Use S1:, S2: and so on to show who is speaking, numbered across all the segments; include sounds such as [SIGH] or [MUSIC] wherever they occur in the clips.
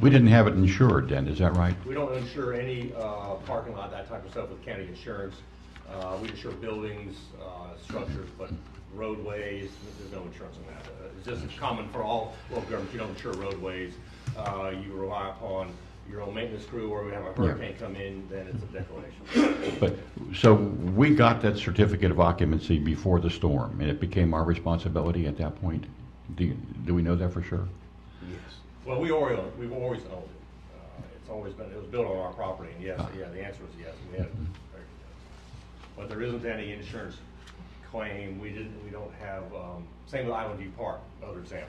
S1: We didn't have it insured then, is that right?
S2: We don't insure any uh, parking lot, that type of stuff with county insurance. Uh, We insure buildings, uh, structures, but roadways, there's no insurance on that. Uh, It's just common for all local governments, you don't insure roadways. Uh, You rely upon your own maintenance crew, or we have a hurricane come in, then it's a declaration.
S1: But, so we got that certificate of occupancy before the storm, and it became our responsibility at that point? Do, you- do we know that for sure?
S2: Well, we already, own- we've always owned it. Uh, It's always been, it was built on our property, and yes, yeah, the answer is yes, we had it.
S3: Mm-hmm.
S2: But there isn't any insurance claim, we didn't, we don't have, um, same with Island View Park, another example.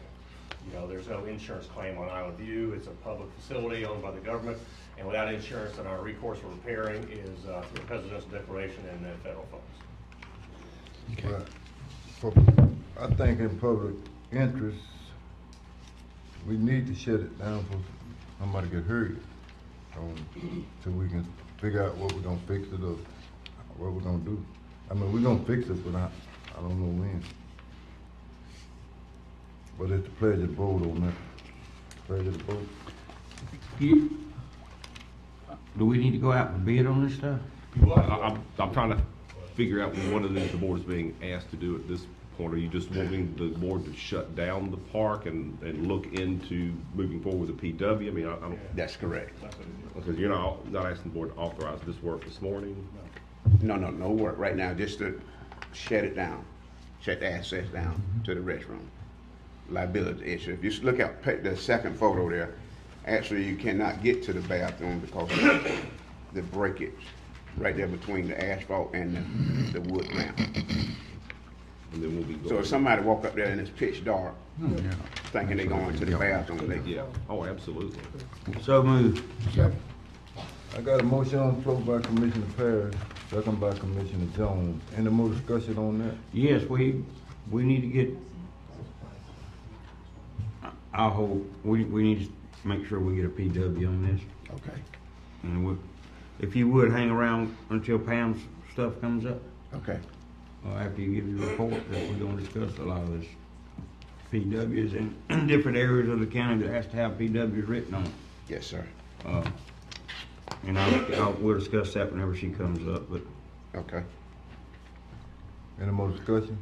S2: You know, there's no insurance claim on Island View, it's a public facility owned by the government, and without insurance, then our recourse for repairing is uh, through a presidential declaration and then federal funds.
S3: Right. For- I think in public interest, we need to shut it down for somebody get hurt. Um, till we can figure out what we're gonna fix it or what we're gonna do. I mean, we're gonna fix it, but I, I don't know when. But it's the pleasure of the board on that. Pleasure of the board.
S4: You, do we need to go out and bid on this stuff?
S5: I- I- I'm, I'm trying to figure out what it is the board is being asked to do at this point. Are you just wanting the board to shut down the park and, and look into moving forward with the PW? I mean, I, I don't.
S6: That's correct.
S5: Because you're not, not asking the board to authorize this work this morning?
S6: No, no, no work right now, just to shut it down, shut the access down to the restroom. Liability issue. If you s- look at pa- the second photo there, actually you cannot get to the bathroom because of the breakage right there between the asphalt and the, the wood ramp.
S5: And then we'll be going.
S6: So if somebody walk up there and it's pitch dark,
S1: Yeah.
S6: thinking they going to the bathroom, they
S5: Yeah, oh, absolutely.
S4: So move.
S3: I got a motion on the floor by Commissioner Parrish, second by Commissioner Jones. Any more discussion on that?
S4: Yes, we, we need to get, I- I hope, we, we need to make sure we get a PW on this.
S6: Okay,
S4: And we, if you would, hang around until Pam's stuff comes up,
S6: okay.
S4: or after you give your report, that we're gonna discuss a lot of this. PWs in- in different areas of the county that has to have PWs written on it.
S6: Yes, sir.
S4: Uh, And I'll, I'll, we'll discuss that whenever she comes up, but
S6: Okay.
S3: Any more discussion?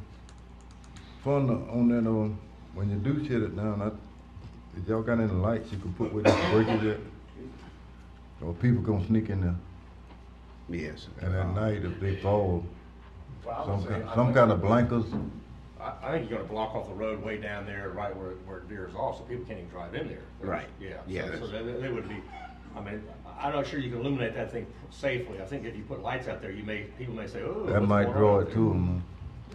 S3: Fun on that, um, when you do shut it down, I, if y'all got any lights you can put with this breakage at? Or people gonna sneak in there,
S6: Yes.
S3: and at night if they fall,
S2: Well, I would
S3: some,
S2: say-
S3: kind-
S2: I
S3: some
S2: think-
S3: kind of blankets,
S2: I, I think you're gonna block off the road way down there, right where, where Deer's off, so people can't even drive in there.
S6: Right.
S2: Yeah,
S6: Yeah,
S2: so, so
S6: that's-
S2: they, they would be, I mean, I- I'm not sure you can illuminate that thing safely. I think if you put lights out there, you may, people may say, oh.
S3: that might draw it to them.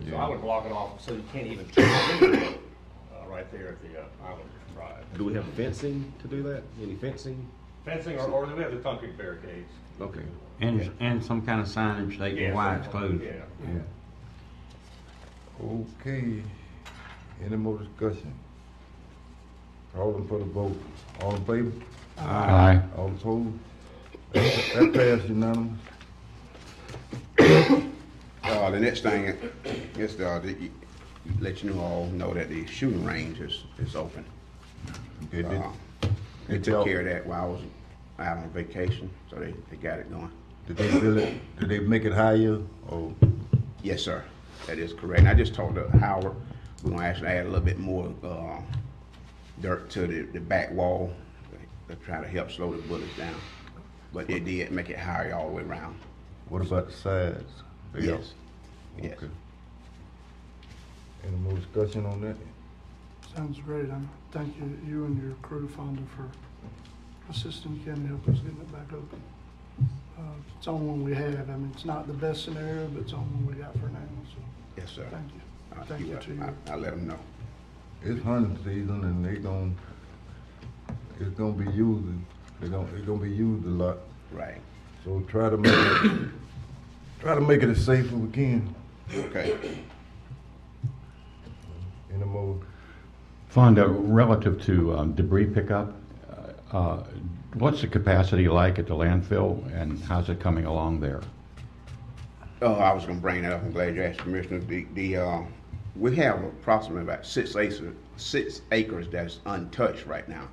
S2: So I would block it off, so you can't even turn in there, uh, right there at the, uh, Island Drive.
S5: Do we have fencing to do that? Any fencing?
S2: Fencing, or, or we have the concrete barricades.
S5: Okay.
S4: And, and some kind of signage stating
S2: Yeah,
S4: why it's
S2: so-
S4: closed.
S2: Yeah.
S3: uh, Okay, any more discussion? Calling for the vote, all in favor,
S1: Aye.
S3: all opposed? That passed unanimous.
S6: Uh, the next thing is, uh, that you- let you all know that the shooting range is, is open.
S3: Okay, did-
S6: Uh, They
S3: did
S6: took
S3: y'all-
S6: care of that while I was out on vacation, so they, they got it going.
S3: Did they build it, did they make it higher, or?
S6: Yes, sir, that is correct. And I just talked to Howard, we're gonna actually add a little bit more, uh, dirt to the, the back wall to try to help slow the bullets down. But they did make it higher all the way around.
S3: What about the sides? They all-
S6: Yes, yes.
S3: Okay. Any more discussion on that?
S7: Sounds great. I'm, thank you, you and your crew, Fonda, for assisting Ken help us getting it back open. Uh, It's on one we have. I mean, it's not the best scenario, but it's on one we got for now, so
S6: yes, sir.
S7: thank you.
S6: Uh,
S7: Thank you to you.
S6: I, I let them know.
S3: It's hunting season and they gon' it's gonna be used, they gon' it's gonna be used a lot.
S6: Right,
S3: So try to make it, [COUGHS] try to make it as safe as we can.
S6: okay.
S3: Any more,
S1: Fonda, relative to um, debris pickup, uh, uh, what's the capacity like at the landfill, and how's it coming along there?
S6: Oh, I was gonna bring that up. I'm glad you asked, Commissioner. The, the, uh, we have approximately about six acres, six acres that's untouched right now.